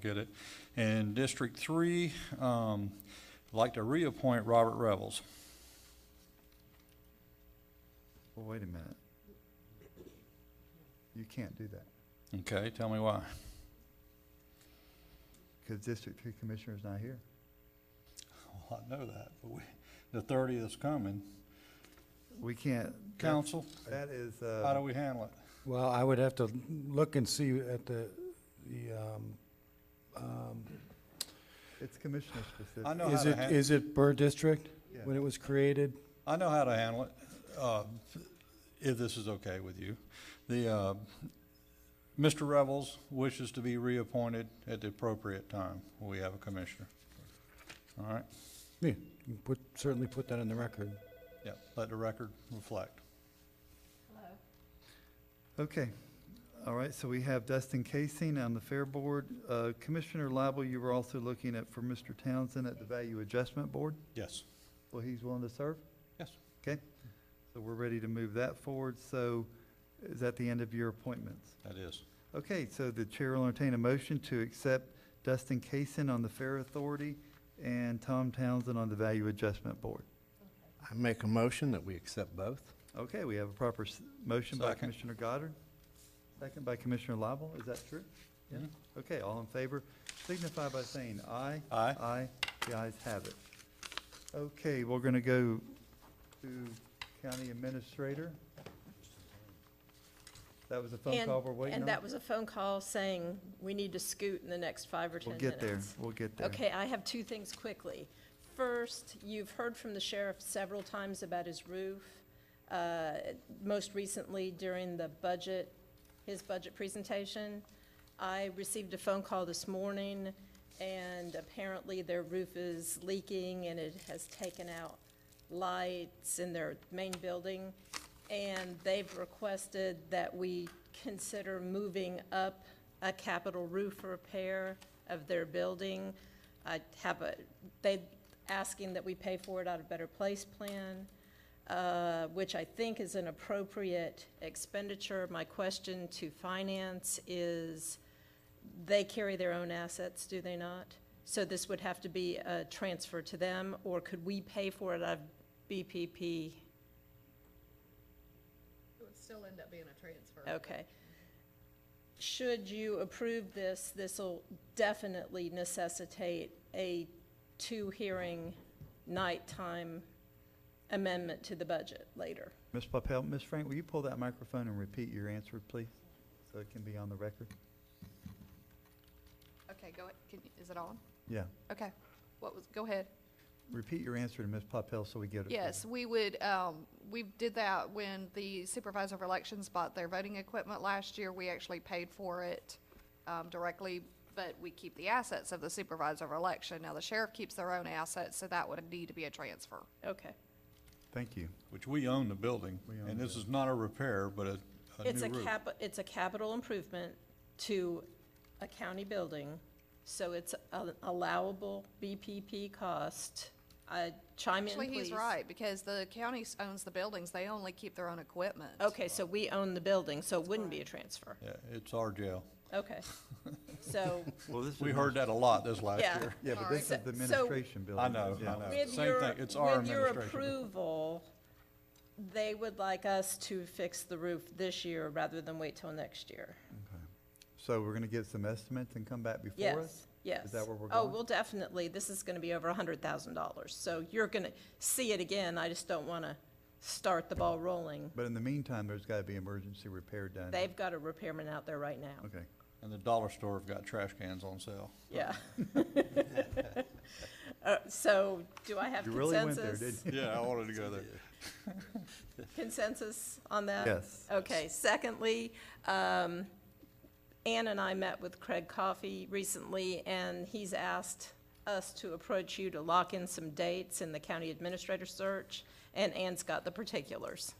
Get it. And District Three, um, I'd like to reappoint Robert Revels. Well, wait a minute. You can't do that, Okay, tell me why. because District Three Commissioner is not here. Well, I know that, but we, the thirtieth is coming. We can't, that Council, that is, how do uh, we handle it? Well, I would have to look and see at the, the, um, um, it's commissioner specific. I know how is to it, handle, is it per district Yeah. when it was created? I know how to handle it, uh, if this is okay with you. The, uh, Mr. Revels wishes to be reappointed at the appropriate time. We have a commissioner. All right, Yeah, you put, certainly put that in the record. yeah, let the record reflect. Okay, all right, so we have Dustin Casing on the Fair Board. Uh, Commissioner Lible, you were also looking at for Mr. Townsend at the Value Adjustment Board. Yes, Well, he's willing to serve? yes. Okay, so we're ready to move that forward. So is that the end of your appointments? That is. Okay, so the chair will entertain a motion to accept Dustin Kaysen on the Fair Authority and Tom Townsend on the Value Adjustment Board. I make a motion that we accept both. Okay, we have a proper s- motion by Second. Commissioner Goddard, second by Commissioner Lible, is that true? Yeah. Mhm. Okay, all in favor, signify by saying aye. Aye. Aye, the ayes have it. Okay, we're gonna go to County Administrator. That was a phone And- call we're waiting on? And that was a phone call saying, we need to scoot in the next five or 10 We'll minutes. get there, we'll get there. Okay, I have two things quickly. First, you've heard from the sheriff several times about his roof. Uh, Most recently during the budget, his budget presentation. I received a phone call this morning, and apparently their roof is leaking, and it has taken out lights in their main building. And they've requested that we consider moving up a capital roof repair of their building. I have a, they asking that we pay for it out of Better Place Plan, uh, which I think is an appropriate expenditure. My question to finance is, they carry their own assets, do they not? So this would have to be a transfer to them, or could we pay for it out of BPP? It would still end up being a transfer. Okay. Should you approve this, this'll definitely necessitate a two-hearing nighttime amendment to the budget later. Ms. Papel, Ms. Frank, will you pull that microphone and repeat your answer, please, so it can be on the record? Uh, Okay, go ahead. Can, you- is it on? Yeah, Okay. What was, go ahead. repeat your answer to Ms. Papel so we get it. Yes, we would, um, we did that when the supervisor of elections bought their voting equipment last year. We actually paid for it, um, directly, but we keep the assets of the supervisor of election. Now, the sheriff keeps their own assets, so that would need to be a transfer. Okay. Thank you. Which we own the building, We own and the this is not a repair, but a, a new roof. It's a cap, it's a capital improvement to a county building, so it's an allowable BPP cost. Uh, chime in, please. Actually, he's right, because the county s- owns the buildings. They only keep their own equipment. Okay, so we own the building, so it wouldn't be a transfer. Yeah, it's our jail. Okay. So, Well, this We heard that a lot this last Yeah. year. Yeah, but Sorry. this is the So- administration building. I know, yeah. I know. with Same your, thing, it's our with your administration. approval, they would like us to fix the roof this year rather than wait till next year. So we're gonna get some estimates and come back before us? Yes, yes. Is that where we're Oh, going? well, definitely, this is gonna be over a hundred thousand dollars, so you're gonna see it again, I just don't wanna start the ball rolling. But in the meantime, there's gotta be emergency repair done. They've got a repairman out there right now, Okay. And the dollar store have got trash cans on sale. yeah. Uh, so, do I have You really went there, consensus, didn't you? Yeah, I wanted to go there. consensus on that? Yes. Okay, secondly, um, Ann and I met with Craig Coffey recently, and he's asked us to approach you to lock in some dates in the county administrator search, and Ann's got the particulars.